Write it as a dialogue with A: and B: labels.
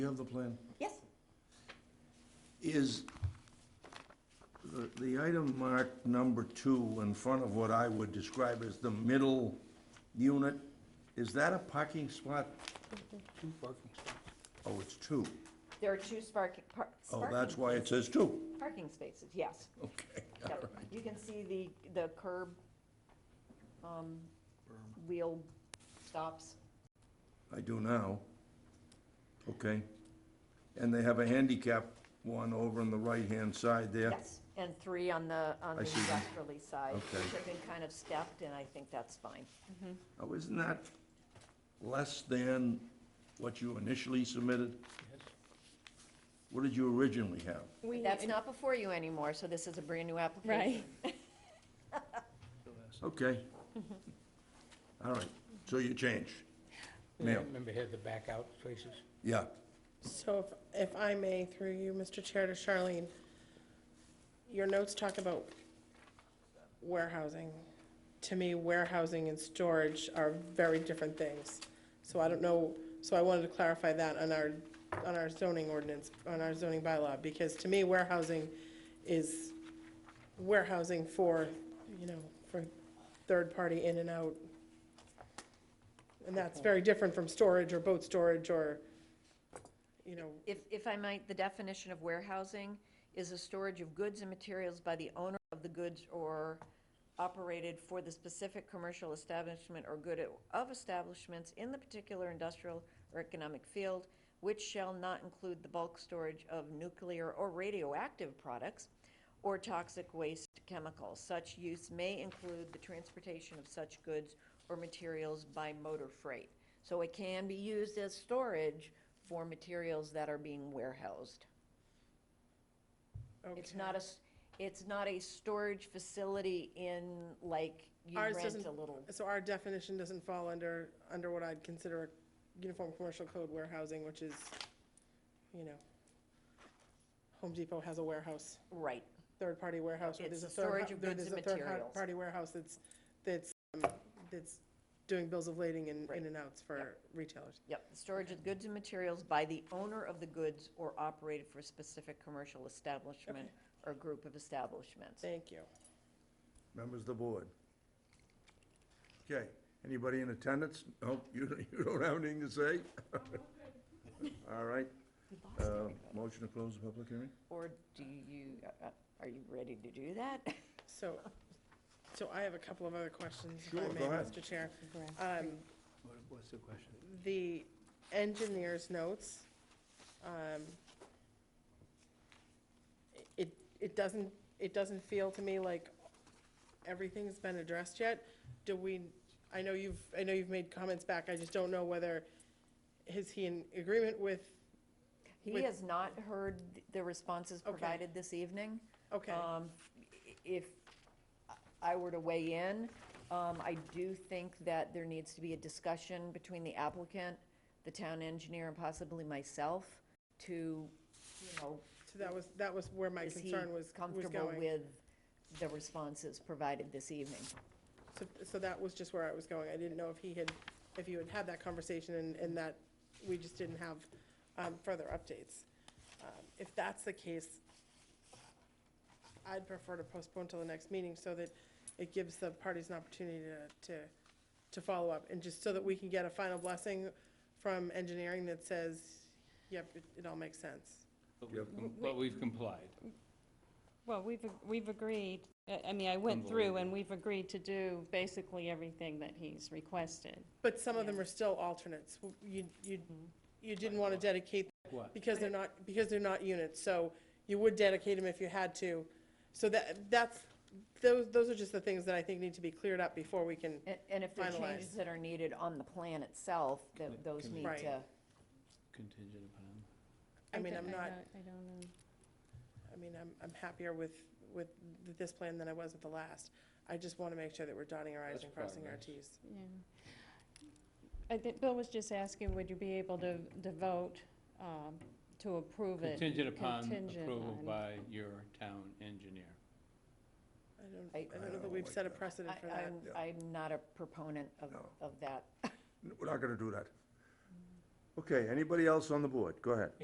A: You have the plan.
B: Yes,
A: Is the- the item marked number two in front of what I would describe as the middle unit, is that a parking spot?
C: Two parking spots.
A: Oh, it's two.
B: there are two sparking, par-
A: Oh, that's
B: sparking,
A: why it says two.
B: parking spaces, yes.
A: Okay, all
B: Yep.
A: right.
B: You can see the, the curb, um, wheel stops.
A: I do now. Okay. And they have a handicap one over on the right-hand side there?
B: Yes, and three on the, on
A: I
B: the
A: see them.
B: westerly side,
A: Okay.
B: which have been kind of stepped, and I think that's fine.
A: Oh, isn't that less than what you initially submitted? What did you originally have?
B: But
D: We,
B: That's not before you anymore, so this is a brand-new application.
D: right.
A: Okay. All right, so you change. Ma'am.
C: Remember had the back out places?
A: Yeah,
E: So if, if I may, through you, Mr. Chair, to Charlene, your notes talk about warehousing. To me, warehousing and storage are very different things. So I don't know, so I wanted to clarify that on our, on our zoning ordinance, on our zoning bylaw, because to me, warehousing is warehousing for, you know, for third-party in and out. And that's very different from storage or boat storage or, you know,
B: If, if I might, the definition of warehousing is a storage of goods and materials by the owner of the goods or operated for the specific commercial establishment or good of establishments in the particular industrial or economic field, which shall not include the bulk storage of nuclear or radioactive products or toxic waste chemicals. Such use may include the transportation of such goods or materials by motor freight. So it can be used as storage for materials that are being warehoused.
E: okay.
B: It's not a, s- it's not a storage facility in, like, you
E: Ours
B: rent
E: doesn't-
B: a little.
E: So our definition doesn't fall under, under what I'd consider a uniform commercial code warehousing, which is, you know, Home Depot has a warehouse,
B: Right,
E: third-party warehouse, or
B: It's
E: there's a
B: the
E: third,
B: storage of
E: there-
B: goods
E: there's a
B: and materials.
E: third-party warehouse that's, that's, um, that's doing bills of lading and
B: Right.
E: in and outs for retailers.
B: yep. Storage of goods and materials by the owner of the goods or operated for a specific commercial establishment or group of establishments.
E: Thank you.
A: members of the board. Okay, anybody in attendance? No, you, you don't have anything to say? All right,
B: We lost
A: uh,
B: everybody.
A: motion to close the public hearing?
B: Or do you, uh, uh, are you ready to do that?
E: So, so I have a couple of other questions, if
A: Sure,
E: I
A: go
E: may,
A: ahead.
E: Mr. Chair. Um,
C: What's the question?
E: the engineer's notes, um, it, it doesn't, it doesn't feel to me like everything's been addressed yet. Do we, I know you've, I know you've made comments back, I just don't know whether, is he in agreement with,
B: He
E: With-
B: has not heard th- the responses provided this evening.
E: okay,
B: Um, i- If I were to weigh in, um, I do think that there needs to be a discussion between the applicant, the town engineer, and possibly myself to, you know,
E: so that was, that was where my
B: is he
E: concern was, was
B: comfortable
E: going.
B: with the responses provided this evening?
E: So, so that was just where I was going, I didn't know if he had, if you had had that conversation and, and that we just didn't have, um, further updates. Um, If that's the case, I'd prefer to postpone till the next meeting so that it gives the parties an opportunity to, to, to follow up. And just so that we can get a final blessing from engineering that says, yep, it, it all makes sense.
F: But we've complied.
D: Well, we've, ag- we've agreed, I- I mean, I went through and we've agreed to do basically everything that he's requested.
E: But some of them are still alternates. You, you, you didn't want to dedicate
C: What?
E: Because they're not, because they're not units, so you would dedicate them if you had to. So that, that's, those, those are just the things that I think need to be cleared up before we can,
B: And- And if there are changes
E: Finalized.
B: that are needed on the plan itself, then
C: Can-
B: those
C: can
B: need
E: Right.
B: to,
C: Contingent upon.
E: I mean,
D: don't-
E: I'm not,
D: don't- I don't know.
E: I mean, I'm, I'm happier with, with this plan than I was with the last. I just want to make sure that we're dotting our i's
C: That's
E: and crossing our
C: progress.
E: t's.
D: Yeah. I think Bill was just asking, would you be able to, to vote um, to approve it?
F: Contingent upon
D: Contingent
F: approval
D: on-
F: by your town engineer.
E: I don't,
B: I-
E: I don't
A: I
E: know that
A: don't
E: we've
A: like
E: set a
A: that.
E: precedent for
B: I-
E: that.
B: I'm, I'm not a proponent of,
A: No.
B: of that.
A: We're not gonna do that. Okay, anybody else on the board? Go ahead.